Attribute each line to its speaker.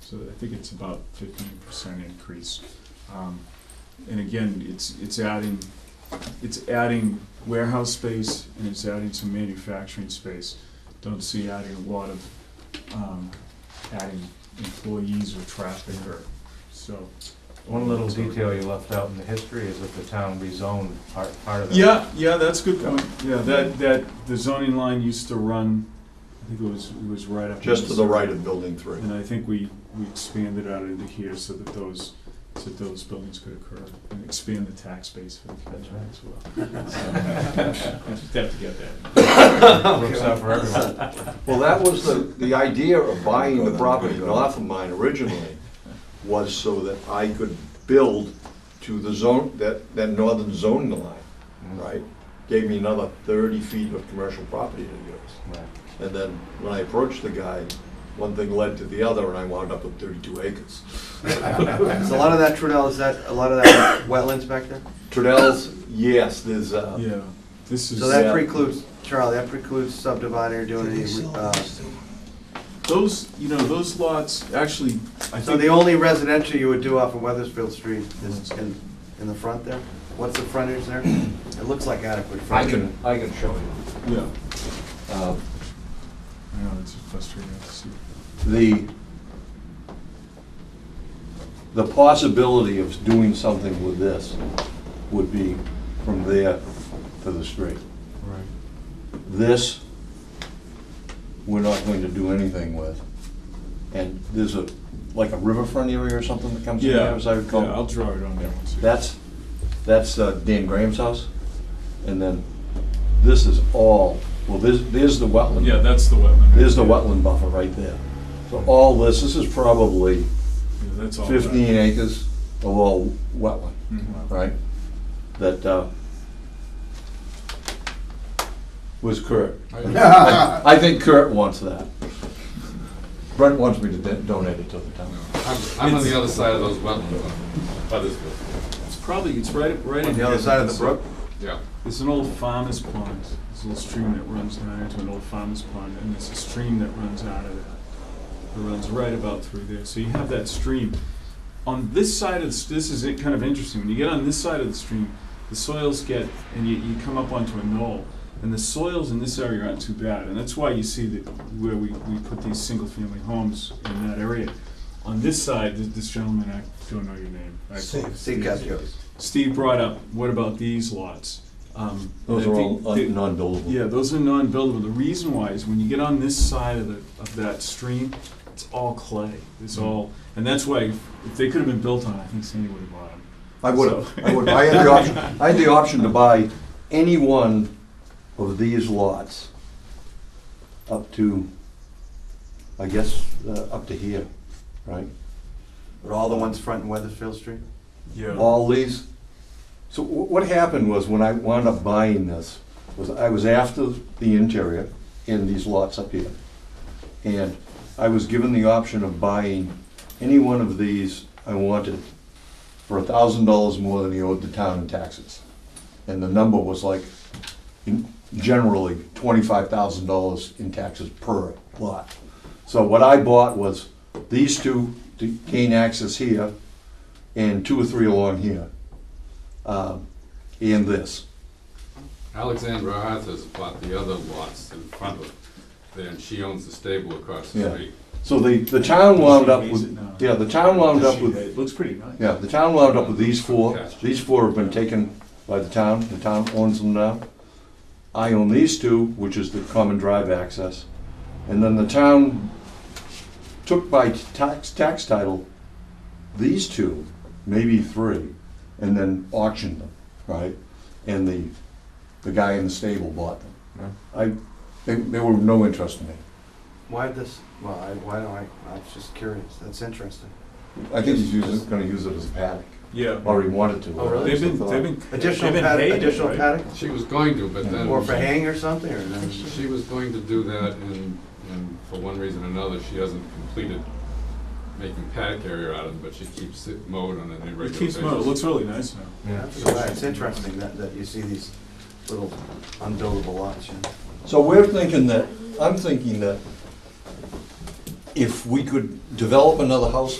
Speaker 1: So I think it's about fifteen percent increase. Um, And again, it's, it's adding, it's adding warehouse space and it's adding some manufacturing space. Don't see adding a lot of, um, adding employees or traffic or, so.
Speaker 2: One little detail you left out in the history is that the town rezoned part, part of it.
Speaker 1: Yeah, yeah, that's a good point. Yeah, that, that, the zoning line used to run, I think it was, it was right up.
Speaker 3: just to the right of building three.
Speaker 1: And I think we, we expanded out into here so that those, so that those buildings could occur and expand the tax base for the county as well. So, I Just have to get that.
Speaker 2: Works out for everyone.
Speaker 3: Well, that was the, the idea of buying the property north of mine originally, was so that I could build to the zone, that, that northern zoning line, right? Gave me another thirty feet of commercial property to use.
Speaker 2: Right.
Speaker 3: And then when I approached the guy, one thing led to the other, and I wound up with thirty-two acres.
Speaker 4: Is a lot of that Trudell, is that, a lot of that wetlands back there?
Speaker 3: Trudell's, yes, there's, uh,
Speaker 1: Yeah, this
Speaker 4: So
Speaker 1: is,
Speaker 3: Yeah.
Speaker 4: that precludes, Charlie, that precludes subdividing or doing any, uh,
Speaker 1: those, you know, those lots, actually, I
Speaker 4: so the
Speaker 1: think,
Speaker 4: only residential you would do off of Weathersfield Street is in, in the front there? What's the frontage there? It looks like adequate
Speaker 2: I
Speaker 4: frontage.
Speaker 2: can, I can show you.
Speaker 1: yeah,
Speaker 2: Uh,
Speaker 1: I know, it's frustrating to see.
Speaker 5: the, the possibility of doing something with this would be from there to the street.
Speaker 1: Right.
Speaker 5: This, we're not going to do anything with. And there's a, like a riverfront area or something that comes in
Speaker 1: Yeah,
Speaker 5: there, as I recall.
Speaker 1: yeah, I'll draw it on there once. you-
Speaker 5: That's, that's uh, Dan Graham's house, and then this is all, well, there's, there's the wetland.
Speaker 1: Yeah, that's the wetland. right
Speaker 5: There's the
Speaker 1: there.
Speaker 5: wetland buffer right there. So all this, this is probably
Speaker 1: Yeah, That's all. that.
Speaker 5: fifteen acres of all wetland,
Speaker 1: Mhm.
Speaker 5: right? That, uh, was Kurt. I think Kurt wants that. Brent wants me to don- donate it to the town.
Speaker 6: I'm, I'm on the other side of those wetlands, by this brook.
Speaker 1: It's probably, it's right, right.
Speaker 4: On
Speaker 1: in
Speaker 4: the other
Speaker 1: here.
Speaker 4: side of the
Speaker 1: It's-
Speaker 4: brook?
Speaker 6: Yeah.
Speaker 1: It's an old farmer's pond. There's a little stream that runs down into an old farmer's pond, and there's a stream that runs out of that. It runs right about through there. So you have that stream. On this side of the, s- this is it kind of interesting. When you get on this side of the stream, the soils get, and you, you come up onto a knoll, and the soils in this area aren't too bad. And that's why you see that where we, we put these single family homes in that area. On this side, th- this gentleman, I don't know your name. I apologize.
Speaker 4: See, Castro's.
Speaker 1: Steve brought up, what about these lots? Um,
Speaker 5: Those
Speaker 1: I
Speaker 5: are
Speaker 1: think
Speaker 5: all
Speaker 1: the-
Speaker 5: un- non-buildable.
Speaker 1: Yeah, those are non-buildable. The reason why is when you get on this side of the, of that stream, it's all clay. It's all, and that's why if if they could have been built on, I think Sandy would have bought them.
Speaker 5: I would have, I would, I had the option, I had the option to buy any one of these lots up to, I guess, uh, up to here, right?
Speaker 4: Are all the ones front in Weathersfield Street?
Speaker 1: Yeah.
Speaker 5: All these, so wh- what happened was when I wound up buying this, was I was after the interior in these lots up here. And I was given the option of buying any one of these I wanted for a thousand dollars more than he owed the town in taxes. And the number was like, in- generally, twenty-five thousand dollars in taxes per lot. So what I bought was these two to gain access here, and two or three along here, um, and this.
Speaker 6: Alexandra Arthur's bought the other lots in front of there, and she owns the stable across the
Speaker 5: Yeah.
Speaker 6: street.
Speaker 5: So the, the town wound up
Speaker 1: Amazing,
Speaker 5: with,
Speaker 1: no.
Speaker 5: yeah, the town wound up with,
Speaker 1: It looks pretty nice.
Speaker 5: yeah, the town wound up with these four. These four have been taken by the town, the town owns them now. I own these two, which is the common drive access. And then the town took by tax, tax title, these two, maybe three, and then auctioned them, right? And the, the guy in the stable bought them. I, they, they were no interest in me.
Speaker 4: Why this, well, I, why don't I, I'm just curious, that's interesting.
Speaker 5: I think he's using, gonna use it as a paddock,
Speaker 1: Yeah.
Speaker 5: or he wanted to.
Speaker 4: Oh, really?
Speaker 1: They've been, they've been. they've
Speaker 4: Additional
Speaker 1: been
Speaker 4: paddock,
Speaker 1: hated,
Speaker 4: additional
Speaker 1: right?
Speaker 4: paddock,
Speaker 6: She was going to, but then.
Speaker 4: or for hang or something, or no?
Speaker 6: She was going to do that, and, and for one reason or another, she hasn't completed making paddock area out of them, but she keeps it mowed on an irregular
Speaker 1: It
Speaker 6: basis.
Speaker 1: keeps mowing. It looks really nice now.
Speaker 2: yeah.
Speaker 4: So It's interesting that, that you see these little unbuildable lots, you know?
Speaker 5: So we're thinking that, I'm thinking that if we could develop another house